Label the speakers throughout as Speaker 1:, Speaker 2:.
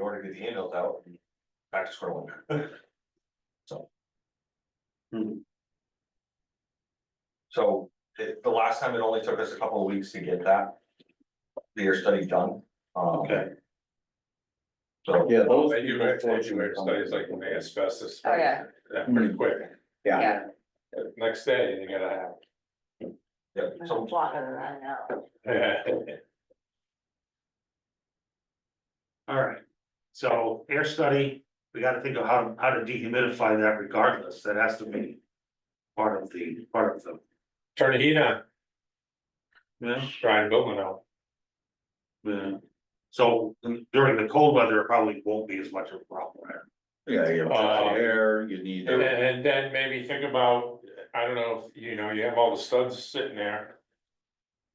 Speaker 1: order to get the handles out. and Back to square one. So.
Speaker 2: Hmm.
Speaker 1: So, it, the last time it only took us a couple of weeks to get that. The air study done, um,
Speaker 2: Okay.
Speaker 1: so.
Speaker 2: Yeah.
Speaker 3: Well, they do evacuation studies like when they asbestos.
Speaker 4: Oh, yeah.
Speaker 3: That pretty quick,
Speaker 4: Yeah.
Speaker 3: The next day you gotta have.
Speaker 1: Yeah, so,
Speaker 4: Blocking it right now.
Speaker 2: All right, so air study, we gotta think of how, how to dehumidify that regardless, that has to be. Part of the, part of the,
Speaker 3: Turn the heat on,
Speaker 2: yeah,
Speaker 3: try and build one out.
Speaker 2: yeah. So during the cold weather, it probably won't be as much of a problem.
Speaker 5: Yeah, you have hot
Speaker 3: Uh,
Speaker 5: air, you need.
Speaker 3: And then, and then maybe think about, I don't know, if you know, you have all the studs sitting there.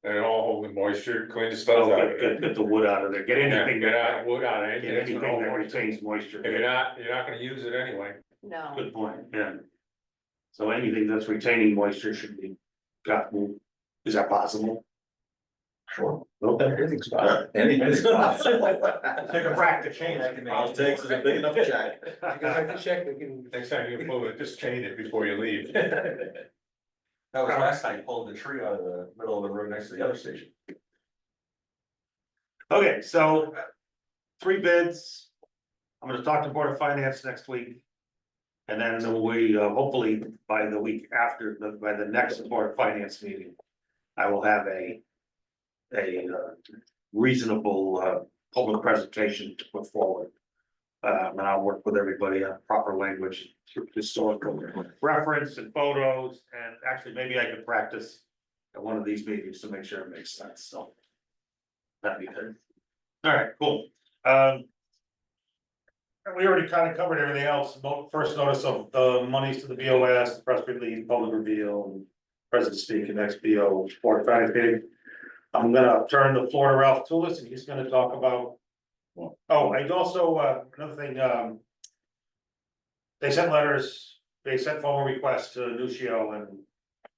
Speaker 3: They're all holding moisture, clean the studs out.
Speaker 2: Get, get- get the wood out of there, get anything,
Speaker 3: Get out,
Speaker 2: that-
Speaker 3: wood out,
Speaker 2: get
Speaker 3: anything that's
Speaker 2: anything
Speaker 3: gonna hold
Speaker 2: that
Speaker 3: moisture.
Speaker 2: retains moisture.
Speaker 3: If you're not, you're not gonna use it anyway.
Speaker 4: No,
Speaker 2: Good point, yeah. So anything that's retaining moisture should be got moved. Is that possible?
Speaker 1: sure.
Speaker 5: Everything's fine. Anything's possible.
Speaker 1: Take a crack to change. I can make it.
Speaker 5: All it takes is a big enough check.
Speaker 3: check, we can. Next time you move it, just change it before you leave.
Speaker 1: That was last night, pulling the tree out of the middle of the road next to the other station.
Speaker 2: Okay, so uh, three bids. I'm gonna talk to Board of Finance next week. And then we uh, hopefully by the week after, the- by the next Board of Finance meeting, I will have a a uh, reasonable uh, public presentation to put forward. Um, and I'll work with everybody on proper language, historical reference and photos, and actually maybe I could practice at one of these meetings to make sure it makes sense, so. That'd be good. All right, cool. Um. and we already kind of covered everything else, Mo- first notice of the monies to the BOS, press release, public reveal. President speaking, XBO, Board of Finance meeting. I'm gonna turn the floor to Ralph Tulis and he's gonna talk about. Oh, I'd also, uh, another thing, um. They sent letters, they sent formal requests to Nucio and,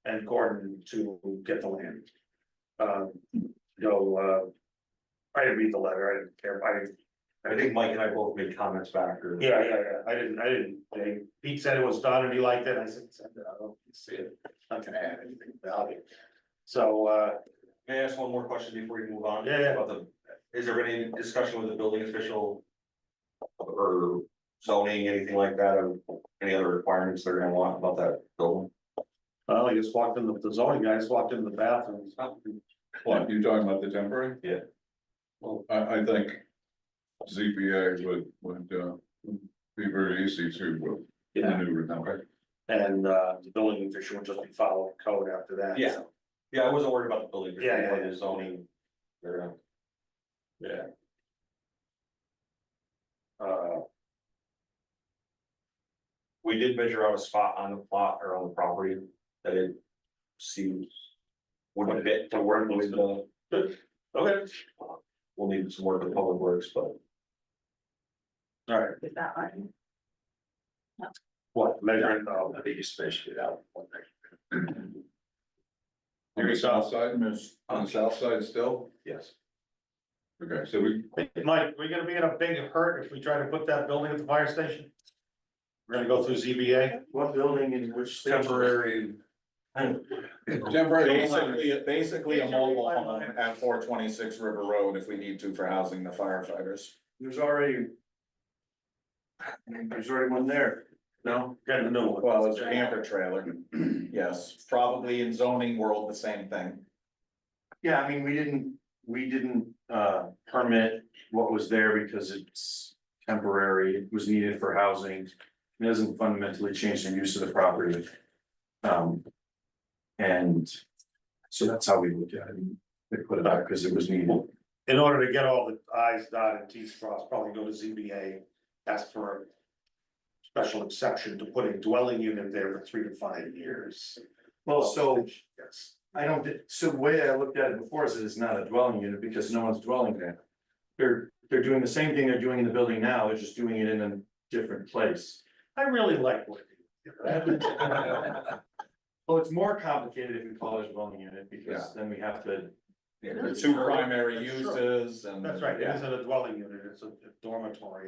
Speaker 2: and Gordon to get the land. Um, so, uh. I didn't read the letter, I didn't care, I, didn't-
Speaker 1: I think Mike and I both made comments back or.
Speaker 2: yeah, yeah, yeah, I didn't, I didn't, they, Pete said it was done and he liked it, I said, "Send it, I don't see it, not gonna add anything value. So, uh,
Speaker 1: May I ask one more question before we move on?
Speaker 2: Yeah, yeah.
Speaker 1: About the, is there any discussion with the building official? Or zoning, anything like that, or any other requirements they're gonna want about that building?
Speaker 2: well, I just walked in, the the zoning guy just walked into the bathroom,
Speaker 1: Oh,
Speaker 6: What, you talking about the temporary?
Speaker 1: Yeah.
Speaker 6: Well, I, I think ZBA would, would, uh, be very easy to uh,
Speaker 2: Yeah.
Speaker 6: maneuver now, right?
Speaker 2: and, uh, the building official would just be following code after that.
Speaker 1: Yeah.
Speaker 2: so.
Speaker 1: Yeah, I wasn't worried about the building, just
Speaker 2: Yeah, yeah,
Speaker 1: about
Speaker 2: yeah.
Speaker 1: the zoning. They're gonna-
Speaker 2: Uh,
Speaker 1: We did measure out a spot on the plot or on the property that it seems would fit to work with the,
Speaker 2: okay,
Speaker 1: we'll need some work with public works, but
Speaker 2: all right,
Speaker 4: is that on?
Speaker 2: what, measuring, oh, I think you spaced it out. one thing.
Speaker 6: On the south side, on the south side still?
Speaker 1: yes.
Speaker 6: Okay, so we,
Speaker 2: Mike, we gonna be in a big hurt if we try to put that building at the fire station? We're gonna go through ZBA?
Speaker 5: What building in which?
Speaker 1: Temporary.
Speaker 6: temporary,
Speaker 5: Basically, basically a mobile home at four twenty-six River Road if we need to for housing the firefighters.
Speaker 2: There's already. There's already one there. No, got a new one.
Speaker 5: Well, it's a camper trailer, yes, probably in zoning world, the same thing.
Speaker 7: Yeah, I mean, we didn't, we didn't uh permit what was there because it's temporary, it was needed for housing. It doesn't fundamentally change the use of the property. Um. And so that's how we looked at it. They put it out because it was needed.
Speaker 2: In order to get all the i's dotted and t's crossed, probably go to ZBA, ask for. a Special exception to put a dwelling unit there for three to five years.
Speaker 7: Well,
Speaker 1: Oh,
Speaker 7: so
Speaker 2: Yes,
Speaker 7: I don't, thi- so the way I looked at it before is that it's not a dwelling unit because no one's dwelling there. They're, they're doing the same thing they're doing in the building now, they're just doing it in a different place.
Speaker 2: I really like what. you did.
Speaker 7: Well, it's more complicated if we call it a dwelling unit because then we have to
Speaker 5: The two primary uses and.
Speaker 2: That's right, it
Speaker 5: Yeah.
Speaker 2: isn't a dwelling unit, it's a dormitory,